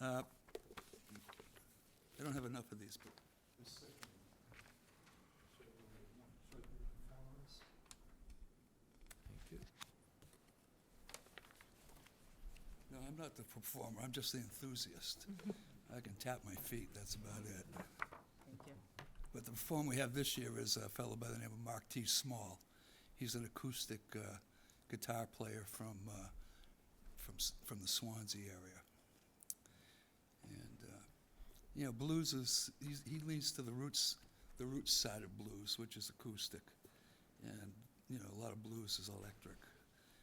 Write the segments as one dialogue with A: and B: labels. A: Uh, I don't have enough of these, but No, I'm not the performer, I'm just the enthusiast. I can tap my feet, that's about it.
B: Thank you.
A: But the performer we have this year is a fellow by the name of Mark T. Small. He's an acoustic uh, guitar player from, uh, from, S- from the Swansea area. And, uh, you know, blues is, he's, he leans to the roots, the roots side of blues, which is acoustic. And, you know, a lot of blues is electric.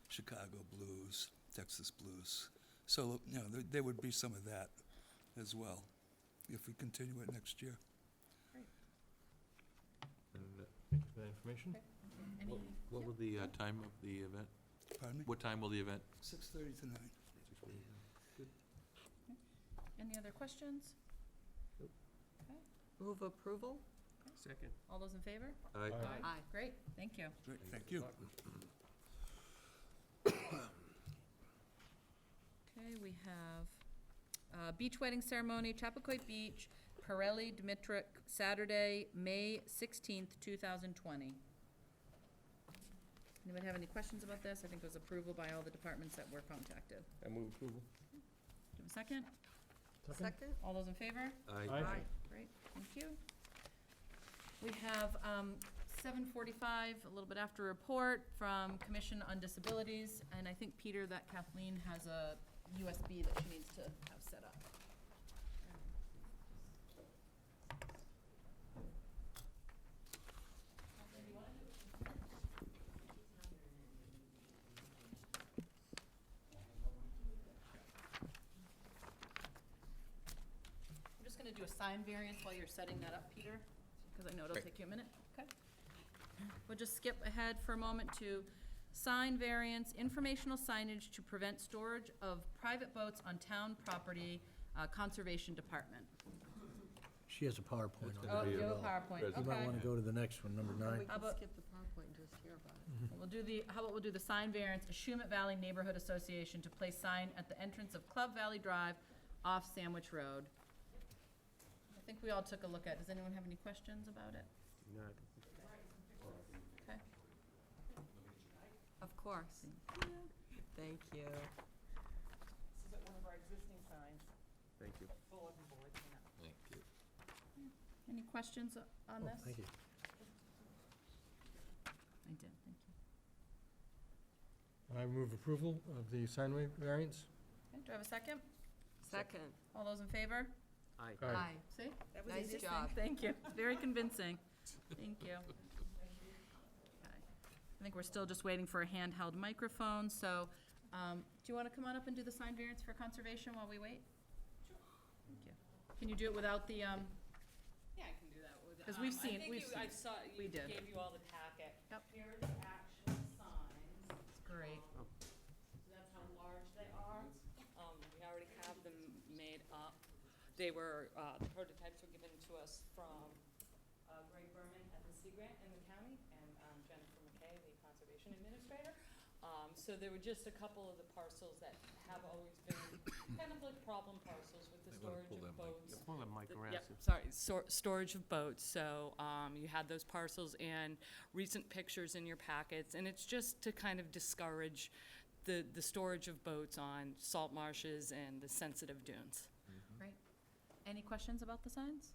A: Chicago blues, Texas blues. So, you know, there, there would be some of that as well if we continue it next year.
C: And uh, thank you for that information.
B: Any,
C: What- What will the uh, time of the event,
A: Pardon me?
C: what time will the event?
A: Six thirty to nine.
B: any other questions?
D: Move approval?
E: Second.
B: All those in favor?
C: Aye.
D: Aye.
B: Great, thank you.
A: Great, thank you.
B: Okay, we have uh, beach wedding ceremony, Chappaquay Beach, Pirelli Dimitrick, Saturday, May 16th, 2020. Anyone have any questions about this? I think it was approval by all the departments that were contacted.
E: I move approval.
B: Do you have a second?
D: Second?
B: All those in favor?
C: Aye.
B: Great, thank you. We have um, 7:45, a little bit after report from Commission on Disabilities, and I think, Peter, that Kathleen has a USB that she needs to have set up. I'm just gonna do a sign variance while you're setting that up, Peter, because I know it'll take you a minute, okay? We'll just skip ahead for a moment to sign variance, informational signage to prevent storage of private boats on town property, uh, Conservation Department.
F: She has a PowerPoint
C: That's
F: on.
C: gonna
B: Oh,
C: be
B: you
C: a-
B: have a PowerPoint,
C: You
F: You might
B: okay.
F: want to go to the next one, number
D: We
F: nine.
D: can
B: about-
D: skip the PowerPoint and just hear about it.
B: We'll do the, how about we'll do the sign variance, Ashumet Valley Neighborhood Association to place sign at the entrance of Club Valley Drive off Sandwich Road. I think we all took a look at, does anyone have any questions about it? Okay.
D: Of course. Thank you.
G: This is at one of our existing signs,
E: Thank you.
G: bulletin boards, you know.
C: Thank you.
B: Any questions on
F: Oh,
B: this?
F: Thank you.
B: I did, thank you.
C: I move approval of the sign variance.
B: Okay, do I have a second?
D: Second.
B: All those in favor?
E: Aye.
B: See?
G: That was
D: Nice
G: easy.
D: job.
B: Thank you. It's very convincing. Thank you. Okay. I think we're still just waiting for a handheld microphone, so, um, do you want to come on up and do the sign variance for conservation while we wait? Thank you. Can you do it without the, um,
G: Yeah, I can do that with.
B: 'Cause we've
G: um,
B: seen- we've
G: I think you, I
B: seen
G: saw,
B: We
G: you
B: did.
G: gave you all the packet.
B: Yep.
G: Here are the actual signs.
B: great.
G: um, So that's how large they are. Um, we already have them made up. They were, uh, the prototypes were given to us from, uh, Greg Berman at the Sea Grant in the county and, um, Jennifer McKay, the conservation administrator. Um, so there were just a couple of the parcels that have always been kind of like problem parcels with the
C: Might wanna
G: storage
C: pull
G: of
C: that mic.
G: boats.
E: Pull that mic
G: The-
E: around.
G: yep,
E: so-
G: sorry, sor- storage of boats, so, um, you had those parcels and recent pictures in your packets, and it's just to kind of discourage the, the storage of boats on salt marshes and the sensitive dunes.
B: Great. Any questions about the signs?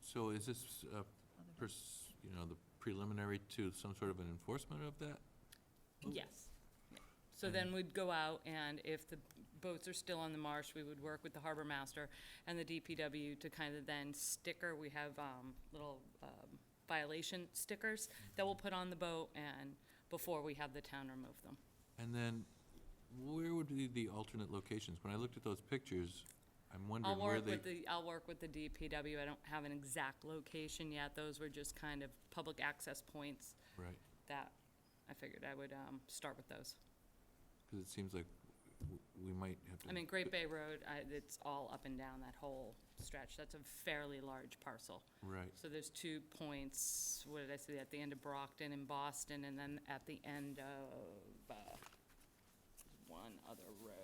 C: So is this, uh,
B: Other-
C: pers- you know, the preliminary to some sort of an enforcement of that?
G: Yes. So then we'd go out, and if the boats are still on the marsh, we would work with the harbor master and the DPW to kind of then sticker, we have, um, little, um, violation stickers that we'll put on the boat and before we have the town remove them.
C: And then where would be the alternate locations? When I looked at those pictures, I'm
G: I'll
C: wondering where
G: work
C: they.
G: with the, I'll work with the DPW. I don't have an exact location yet. Those were just kind of public access points
C: Right,
G: that I figured I would, um, start with those.
C: because it seems like w- we might have to.
G: I mean, Great Bay Road, I, it's all up and down that whole stretch. That's a fairly large parcel.
C: Right,
G: So there's two points, what did I say, at the end of Brockton and Boston, and then at the end of, uh, one other road.